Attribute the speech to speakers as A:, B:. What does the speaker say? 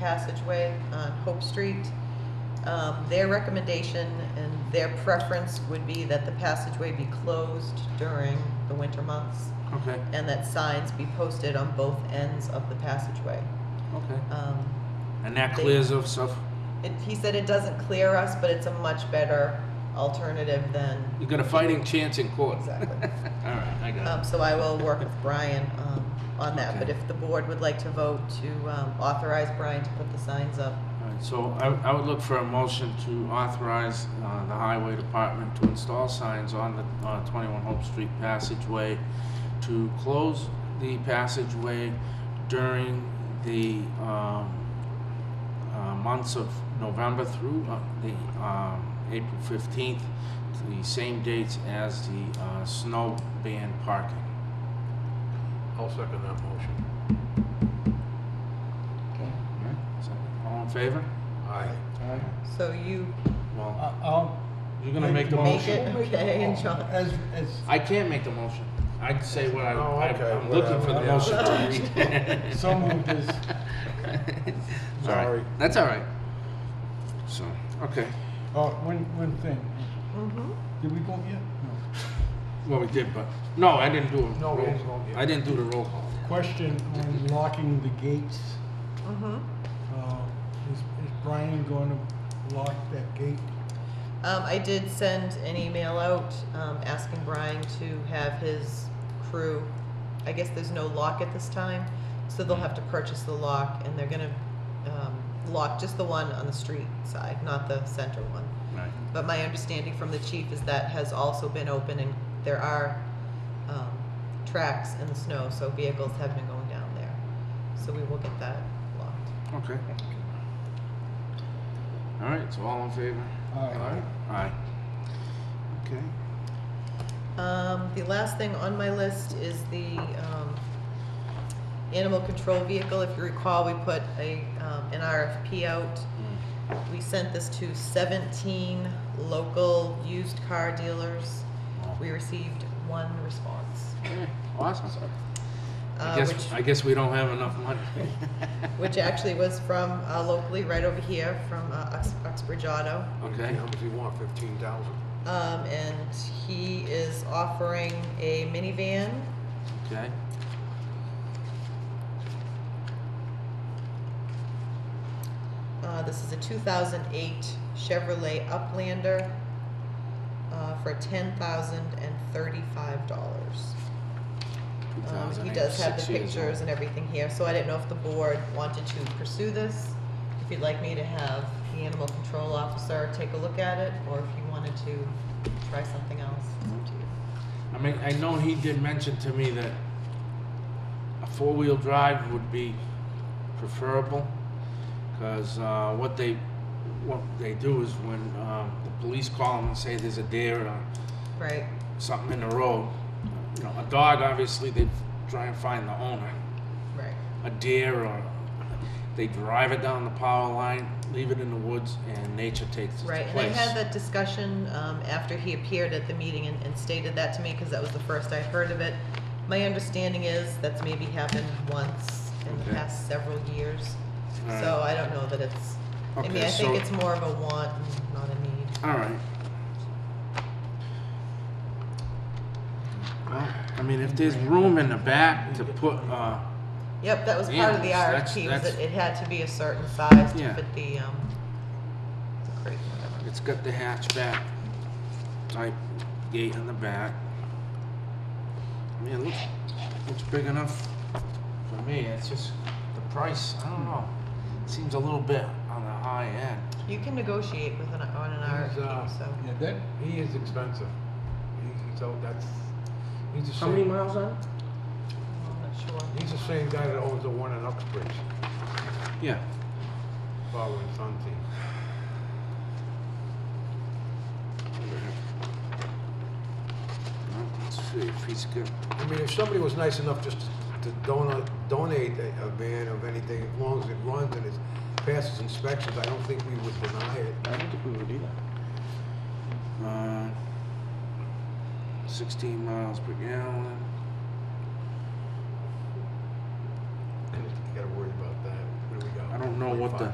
A: passageway on Hope Street. Um, Their recommendation and their preference would be that the passageway be closed during the winter months
B: Okay,
A: and that signs be posted on both ends of the passageway.
B: okay.
A: Um,
B: And that
A: They-
B: clears of stuff.
A: it- He said it doesn't clear us, but it's a much better alternative than
B: You got a fighting chance in court.
A: Exactly.
B: All right, I got
A: Um,
B: it.
A: so I will work with Brian, um, on that, but
B: Okay.
A: if the board would like to vote to, um, authorize Brian to put the signs up.
B: All right, so I, I would look for a motion to authorize uh, the highway department to install signs on the uh, 21 Hope Street passageway to close the passageway during the um, uh, months of November through uh, the um, April 15th, to the same dates as the uh, snow ban parking.
C: I'll second that motion.
B: All in favor?
C: Aye.
A: So you
C: Uh,
B: Well,
D: I- I'll.
B: you're gonna make the
D: a
A: make
B: motion.
A: it, okay, and John,
D: As, as,
B: I can't make the motion. I'd say what I,
C: Oh, okay,
B: I- I'm looking for the motion
C: whatever.
B: to read.
D: so moved uh, is,
B: All right.
C: Sorry.
B: That's all right. So, okay.
D: oh, one, one thing.
A: Mhm.
D: Did we vote yet? No.
B: Well, we did, but, no, I didn't do a
C: No,
B: roll
C: we didn't
B: call.
C: vote yet.
B: I didn't do the roll call.
D: Question on locking the gates.
A: mhm.
D: Uh, Is is Brian going to lock that gate?
A: Um, I did send an email out, um, asking Brian to have his crew, I guess there's no lock at this time, so they'll have to purchase the lock, and they're gonna, um, lock just the one on the street side, not the center one.
B: Right.
A: But my understanding from the chief is that has also been open and there are um, tracks in the snow, so vehicles have been going down there. So we will get that locked.
B: Okay. All right, so all in favor?
D: Aye.
B: Aye. Okay.
A: Um, The last thing on my list is the um, animal control vehicle. If you recall, we put a, um, an RFP out. We sent this to 17 local used car dealers. We received one response.
B: Okay, Awesome.
A: uh,
B: I
A: which-
B: guess, I guess we don't have enough money.
A: which actually was from uh, locally right over here from uh, Ux- Uxbridge Auto.
B: Okay.
C: How much do you want, fifteen thousand?
A: Um, and he is offering a minivan.
B: Okay.
A: Uh, this is a 2008 Chevrolet Uplander uh, for $10,035. Um, he
B: 2008,
A: does have
B: six
A: the
B: years old.
A: pictures and everything here, so I didn't know if the board wanted to pursue this. If you'd like me to have the animal control officer take a look at it, or if you wanted to try something else, it's up to you.
B: I mean, I know he did mention to me that a four-wheel drive would be preferable, because uh, what they what they do is when um, the police call them and say there's a deer or
A: Right,
B: something in the road, you know, a dog obviously they try and find the owner.
A: right.
B: A deer or they drive it down the power line, leave it in the woods, and nature takes its
A: Right,
B: place.
A: and I had that discussion um, after he appeared at the meeting and and stated that to me, because that was the first I heard of it. My understanding is that's maybe happened once in the
B: Okay.
A: past several years,
B: Alright.
A: so I don't know that it's, I mean,
B: Okay,
A: I think
B: so-
A: it's more of a want, and not a need.
B: All right. Well, I mean, if there's room in the back to put, uh,
A: Yep, that was part of the
B: Yeah, that's-
A: RFP, was
B: that's-
A: that it had to be a certain size to
B: Yeah.
A: fit the, um, the crate, whatever.
B: it's got the hatchback type gate in the back. I mean, it looks, looks big enough for me. It's just the price, I don't know. Seems a little bit on the high end.
A: You can negotiate with an, on an
C: He's, uh,
A: RFP, so.
D: Yeah, that,
C: He is expensive. He- So that's, he's the
B: How many
C: same,
B: miles on?
A: I'm not sure.
C: he's the same guy that owns the one in Uxbridge,
B: Yeah.
C: father and son team.
B: Well, Let's see if he's good.
C: I mean, if somebody was nice enough just to donate, donate a a van of anything, as long as it runs and it passes inspections, I don't think we would deny it.
B: I don't think we would either. Uh, 16 miles per gallon.
C: You gotta worry about that. What do we
B: I
C: got?
B: don't know know what the